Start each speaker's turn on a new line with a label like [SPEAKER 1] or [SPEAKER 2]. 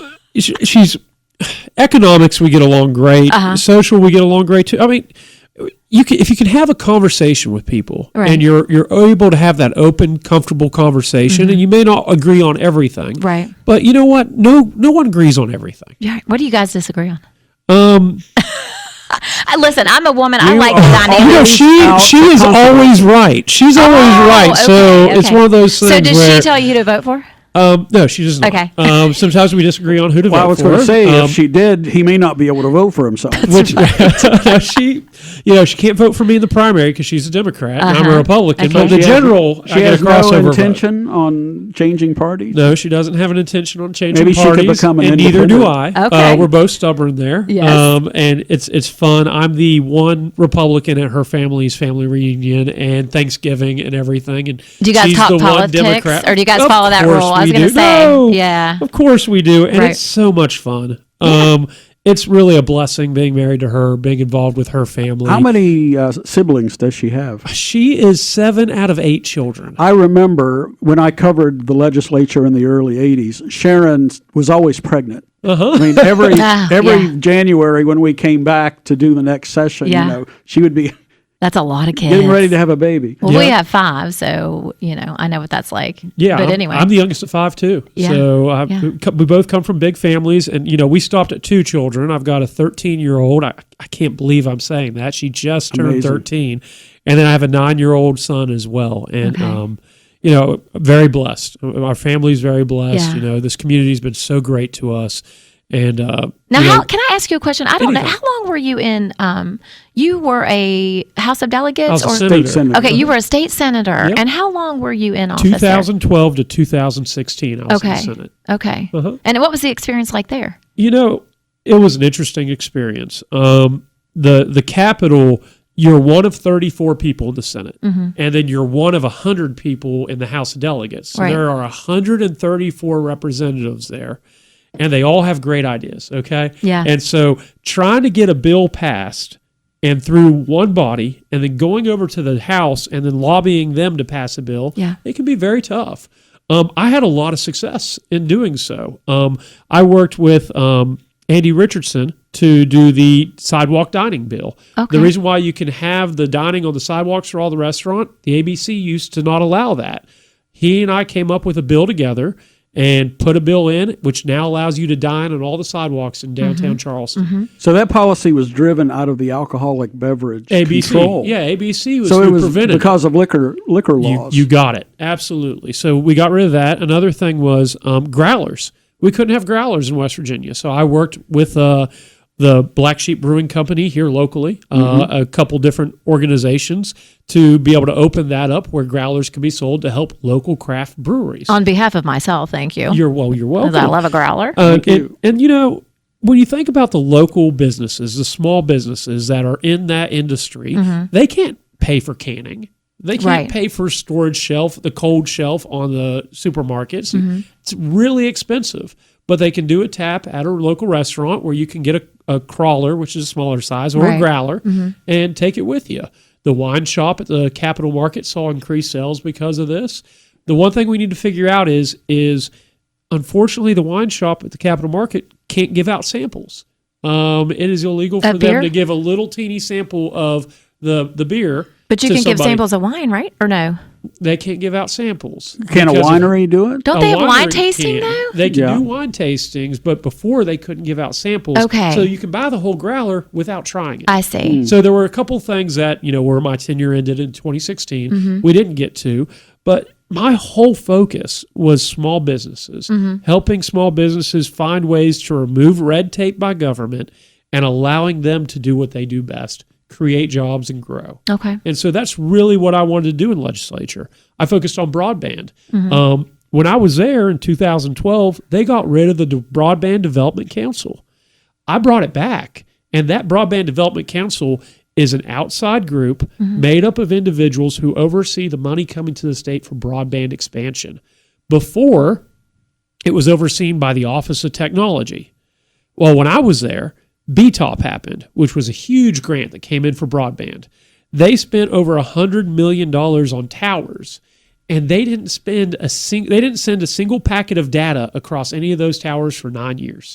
[SPEAKER 1] sh- she's economics we get along great
[SPEAKER 2] Uh-huh.
[SPEAKER 1] social we get along great too i mean you can if you can have a conversation with people
[SPEAKER 2] Right.
[SPEAKER 1] and you're you're able to have that open comfortable conversation and you may not agree on everything
[SPEAKER 2] Mm-hmm. Right.
[SPEAKER 1] but you know what no no one agrees on everything
[SPEAKER 2] Yeah. What do you guys disagree on?
[SPEAKER 1] um
[SPEAKER 2] I, listen, I'm a woman. I
[SPEAKER 1] you
[SPEAKER 2] like
[SPEAKER 1] are-
[SPEAKER 2] the dynamic.
[SPEAKER 1] you know, she
[SPEAKER 3] out
[SPEAKER 1] she
[SPEAKER 3] the
[SPEAKER 1] is
[SPEAKER 3] compromise.
[SPEAKER 1] always right she's always
[SPEAKER 2] Oh,
[SPEAKER 1] right so
[SPEAKER 2] okay,
[SPEAKER 1] it's
[SPEAKER 2] okay.
[SPEAKER 1] one of those things
[SPEAKER 2] So did
[SPEAKER 1] where
[SPEAKER 2] she tell you who to vote for?
[SPEAKER 1] um no she doesn't
[SPEAKER 2] Okay.
[SPEAKER 1] um sometimes we disagree on who to
[SPEAKER 3] Well, I
[SPEAKER 1] vote
[SPEAKER 3] was
[SPEAKER 1] for
[SPEAKER 3] going to say,
[SPEAKER 1] Um,
[SPEAKER 3] if she did, he may not be able to vote for himself.
[SPEAKER 1] which she, you know, she can't vote for me in the primary because she's a Democrat and I'm a
[SPEAKER 2] Uh-huh.
[SPEAKER 1] Republican. But
[SPEAKER 2] Okay.
[SPEAKER 1] the
[SPEAKER 3] She has-
[SPEAKER 1] general,
[SPEAKER 3] she
[SPEAKER 1] I get
[SPEAKER 3] has
[SPEAKER 1] a
[SPEAKER 3] no
[SPEAKER 1] crossover vote.
[SPEAKER 3] intention on changing parties.
[SPEAKER 1] No, she doesn't have an intention on changing
[SPEAKER 3] Maybe she could
[SPEAKER 1] parties,
[SPEAKER 3] become an
[SPEAKER 1] and neither do I.
[SPEAKER 3] independent.
[SPEAKER 2] Okay.
[SPEAKER 1] Uh, we're both stubborn there. Um,
[SPEAKER 2] Yes.
[SPEAKER 1] and it's it's fun. I'm the one Republican at her family's family reunion and Thanksgiving and everything. And
[SPEAKER 2] Do you guys
[SPEAKER 1] she's
[SPEAKER 2] talk
[SPEAKER 1] the one
[SPEAKER 2] politics,
[SPEAKER 1] Democrat.
[SPEAKER 2] or do you guys
[SPEAKER 1] Of
[SPEAKER 2] follow that
[SPEAKER 1] course
[SPEAKER 2] rule? I was
[SPEAKER 1] we
[SPEAKER 2] gonna
[SPEAKER 1] do.
[SPEAKER 2] say,
[SPEAKER 1] No,
[SPEAKER 2] yeah.
[SPEAKER 1] Of course we do, and
[SPEAKER 2] Right.
[SPEAKER 1] it's so much fun. Um, it's really a blessing being married to her, being involved with her family.
[SPEAKER 3] How many uh, siblings does she have?
[SPEAKER 1] She is seven out of eight children.
[SPEAKER 3] I remember when I covered the legislature in the early '80s. Sharon was always pregnant.
[SPEAKER 1] Uh-huh.
[SPEAKER 3] I mean, every
[SPEAKER 2] Ah,
[SPEAKER 3] every
[SPEAKER 2] yeah.
[SPEAKER 3] January when we came back to do the next session,
[SPEAKER 2] Yeah.
[SPEAKER 3] you know, she would be
[SPEAKER 2] That's a lot of kids.
[SPEAKER 3] getting ready to have a baby.
[SPEAKER 2] Well, we
[SPEAKER 1] Yeah.
[SPEAKER 2] have five, so you know I know what that's like.
[SPEAKER 1] Yeah,
[SPEAKER 2] but
[SPEAKER 1] I'm,
[SPEAKER 2] anyway,
[SPEAKER 1] I'm the youngest of five too.
[SPEAKER 2] Yeah,
[SPEAKER 1] So I,
[SPEAKER 2] yeah.
[SPEAKER 1] we co- we both come from big families, and you know we stopped at two children. I've got a 13 year old. I, I can't believe I'm saying that. She just turned
[SPEAKER 3] Amazing.
[SPEAKER 1] 13, and then I have a nine year old son as well. And um, you know, very blessed. Our family's very blessed.
[SPEAKER 2] Yeah.
[SPEAKER 1] You know, this community's been so great to us. And uh,
[SPEAKER 2] now
[SPEAKER 1] you know,
[SPEAKER 2] how can I ask you a question? I don't know
[SPEAKER 1] Anything.
[SPEAKER 2] how long were you in? Um, you were a House of
[SPEAKER 1] I was
[SPEAKER 2] Delegates,
[SPEAKER 1] a
[SPEAKER 2] or
[SPEAKER 1] senator.
[SPEAKER 3] State senator.
[SPEAKER 2] okay, you were a state senator,
[SPEAKER 1] Yep.
[SPEAKER 2] and how long were you in office? there?
[SPEAKER 1] 2012 to 2016, I was in the
[SPEAKER 2] Okay,
[SPEAKER 1] Senate.
[SPEAKER 2] okay,
[SPEAKER 1] Uh-huh.
[SPEAKER 2] and what was the experience like there?
[SPEAKER 1] you know, it was an interesting experience. Um, the the Capitol, you're one of 34 people in the Senate,
[SPEAKER 2] Mm-hmm.
[SPEAKER 1] and then you're one of 100 people in the House of Delegates. So
[SPEAKER 2] Right.
[SPEAKER 1] There are 134 representatives there, and they all have great ideas. Okay,
[SPEAKER 2] Yeah.
[SPEAKER 1] and so trying to get a bill passed. And through one body, and then going over to the House, and then lobbying them to pass a bill.
[SPEAKER 2] Yeah.
[SPEAKER 1] It can be very tough. Um, I had a lot of success in doing so. Um, I worked with um, Andy Richardson to do the sidewalk dining bill.
[SPEAKER 2] Okay.
[SPEAKER 1] The reason why you can have the dining on the sidewalks for all the restaurant, the ABC used to not allow that. He and I came up with a bill together and put a bill in, which now allows you to dine on all the sidewalks in downtown Charleston.
[SPEAKER 3] So that policy was driven out of the alcoholic beverage
[SPEAKER 1] ABC,
[SPEAKER 3] control.
[SPEAKER 1] yeah, ABC was
[SPEAKER 3] So
[SPEAKER 1] who
[SPEAKER 3] it was
[SPEAKER 1] prevented it.
[SPEAKER 3] because of liquor liquor
[SPEAKER 1] You,
[SPEAKER 3] laws.
[SPEAKER 1] you got it. Absolutely. So we got rid of that. Another thing was um, growlers. We couldn't have growlers in West Virginia. So I worked with uh, the Black Sheep Brewing Company here locally, uh, a couple different organizations to be able to open that up where growlers could be sold to help local craft breweries.
[SPEAKER 2] On behalf of myself, thank you.
[SPEAKER 1] you're well, you're
[SPEAKER 2] 'Cause
[SPEAKER 1] welcome.
[SPEAKER 2] Uh, I love a growler.
[SPEAKER 1] Uh,
[SPEAKER 3] Thank
[SPEAKER 1] and,
[SPEAKER 3] you.
[SPEAKER 1] and you know, when you think about the local businesses, the small businesses that are in that industry, they can't pay for canning. They can't
[SPEAKER 2] Mm-hmm. Right.
[SPEAKER 1] pay for storage shelf, the cold shelf on the supermarkets.
[SPEAKER 2] Mm-hmm.
[SPEAKER 1] It's really expensive, but they can do a tap at a local restaurant where you can get a, a crawler, which is a smaller size, or
[SPEAKER 2] Right. Mm-hmm.
[SPEAKER 1] a growler, and take it with you. The wine shop at the Capital Market saw increased sales because of this. The one thing we need to figure out is is unfortunately, the wine shop at the Capital Market can't give out samples. Um, it is illegal for
[SPEAKER 2] Of
[SPEAKER 1] them
[SPEAKER 2] beer?
[SPEAKER 1] to give a little teeny sample of the the beer.
[SPEAKER 2] but you
[SPEAKER 1] to
[SPEAKER 2] can give
[SPEAKER 1] somebody.
[SPEAKER 2] samples of wine, right? Or no?
[SPEAKER 1] They can't give out samples.
[SPEAKER 3] Can a
[SPEAKER 1] because of-
[SPEAKER 3] winery do it?
[SPEAKER 2] Don't they have wine
[SPEAKER 1] winery
[SPEAKER 2] tasting
[SPEAKER 1] can.
[SPEAKER 2] though?
[SPEAKER 1] They can
[SPEAKER 3] Yeah.
[SPEAKER 1] do wine tastings, but before they couldn't give out samples.
[SPEAKER 2] Okay.
[SPEAKER 1] So you can buy the whole growler without trying it.
[SPEAKER 2] I see.
[SPEAKER 1] So there were a couple things that, you know, where my tenure ended in 2016, we didn't get to, but my whole focus was small businesses, helping small businesses find ways to remove red tape by government and allowing them to do what they do best, create jobs and grow.
[SPEAKER 2] Okay.
[SPEAKER 1] And so that's really what I wanted to do in legislature. I focused on broadband. Um, when I was there in 2012, they got rid of the De- Broadband Development Council. I brought it back. And that Broadband Development Council is an outside group made up of individuals who oversee the money coming to the state for broadband expansion. Before, it was overseen by the Office of Technology. Well, when I was there, BTOP happened, which was a huge grant that came in for broadband. They spent over $100 million on towers. And they didn't spend a sing- they didn't send a single packet of data across any of those towers for nine years.